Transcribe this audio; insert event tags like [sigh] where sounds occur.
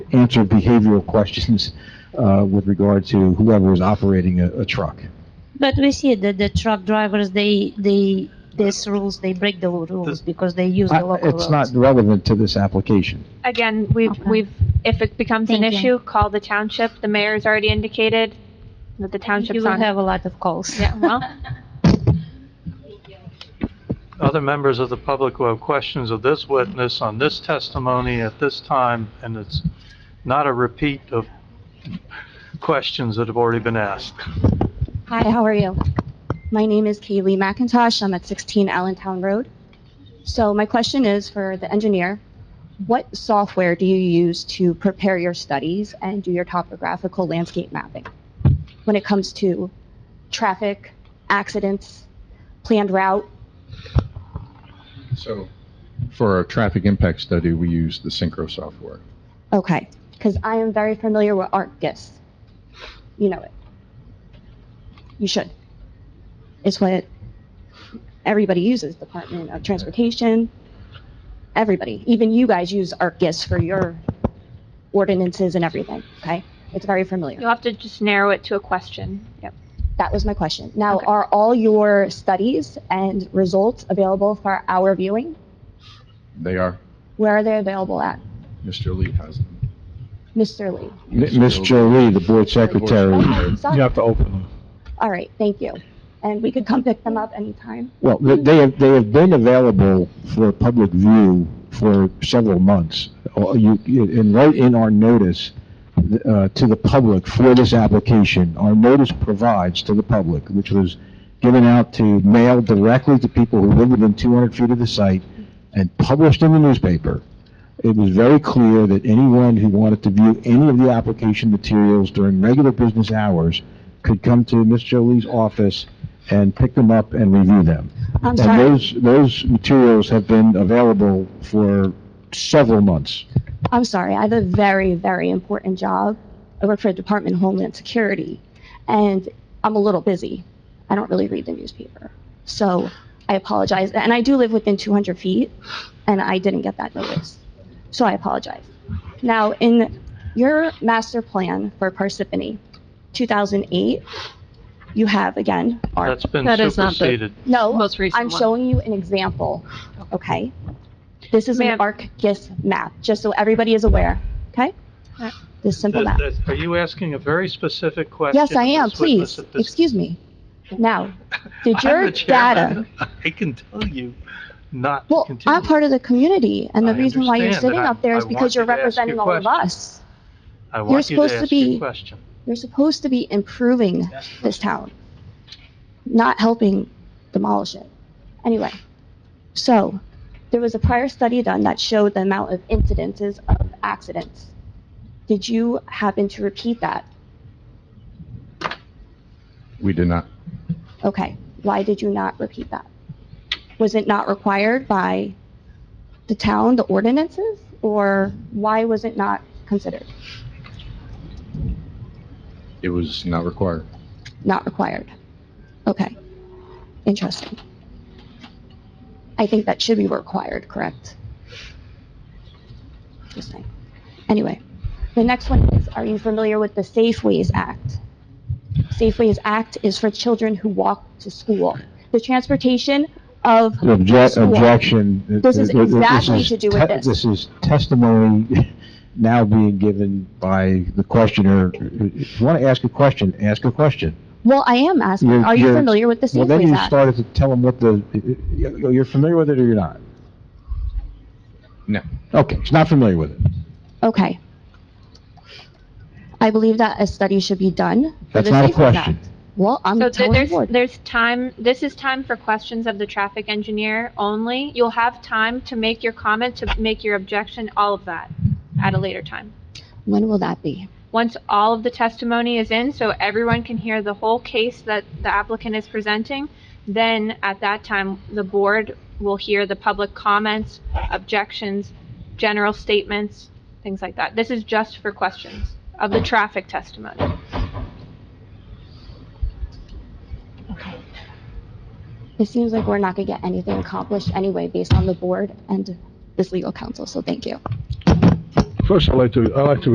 answer behavioral questions uh, with regard to whoever is operating a, a truck. But we see that the truck drivers, they, they, these rules, they break the rules because they use the I- local It's not roads. relevant to this application. Again, we've, Okay. we've, if it becomes an Thank you. issue, call the township. The mayor's already indicated that the You township's will on. it. have a lot of calls. Yeah, well, Other members of the public who have questions of this witness on this testimony at this time, and it's not a repeat of questions that have already been asked. Hi, how are you? My name is Kaylee McIntosh. I'm at 16 Allentown Road. So my question is for the engineer, what software do you use to prepare your studies and do your topographical landscape mapping when it comes to traffic, accidents, planned route? So for our traffic impact study, we use the Synchro software. Okay, because I am very familiar with ArcGIS. You know it. You should. It's what everybody uses, Department of Transportation, everybody. Even you guys use ArcGIS for your ordinances and everything, okay? It's very familiar. you'll have to just narrow it to a question. Yep. That was my question. Now, Okay. are all your studies and results available for our viewing? They are, Where are they available at? Mr. Lee has them. Mr. Lee? M- Ms. Jolie, the board secretary, Oh, sorry. You have to open them. All right, thank you. And we could come pick them up anytime. well, th- they have, they have been available for public view for several months. Or you- you- And right in our notice uh, to the public for this application, our notice provides to the public, which was given out to mail directly to people who live within 200 feet of the site and published in the newspaper, it was very clear that anyone who wanted to view any of the application materials during regular business hours could come to Ms. Jolie's office and pick them up and review them. I'm And sorry, those, those materials have been available for several months. I'm sorry. I have a very, very important job. I work for the Department of Homeland Security, and I'm a little busy. I don't really read the newspaper. So I apologize. And I do live within 200 feet, and I didn't get that notice. So I apologize. Now, in your master plan for Parsippany, 2008, you have, again, our That's been That is not the- superseded. No, Most recent I'm one. showing you an example, okay? This is an Ma'am. ArcGIS map, just so everybody is aware, okay? Right. This simple That- map. that- Are you asking a very specific question? Yes, I of am, this witness please, at this- excuse me. [laughs] Now, did I'm your the chairman. data, [laughs] I can tell you not to well, continue. I'm part of the community, and the I reason why you're understand, sitting but I- up there is I because want you're you to ask your representing all of question. us. I you're want you to supposed to ask your be- question. You're supposed to be improving this town, not helping demolish it. Anyway, so there was a prior study done that showed the amount of incidences of accidents. Did you happen to repeat that? We did not, Okay, why did you not repeat that? Was it not required by the town, the ordinances, or why was it not considered, it was not required. not required? Okay, interesting. I think that should be required, correct? Just saying. Anyway, the next one is, are you familiar with the Safeways Act? Safeways Act is for children who walk to school. The transportation of Obje- School. Objection. This is Th- th- this exactly is to do with te- this. This is testimony [laughs] now being given by the questioner. If you want to ask a question, ask a question. Well, I am asking, You're- are you you're- familiar with the Well, then Safeways you Act? started to tell them what the, you- you're familiar with it or you're not? No. Okay, he's not familiar with it. Okay. I believe that a study should be done for That's the not a Safeways question. Act. Well, I'm So th- telling the there's, board. there's time, this is time for questions of the traffic engineer only. You'll have time to make your comment, to make your objection, all of that at a later time. When will that be? Once all of the testimony is in, so everyone can hear the whole case that the applicant is presenting, then at that time, the board will hear the public comments, objections, general statements, things like that. This is just for questions of the traffic testimony. It seems like we're not going to get anything accomplished anyway based on the board and this legal counsel, so thank you. First, I'd like to, I'd like to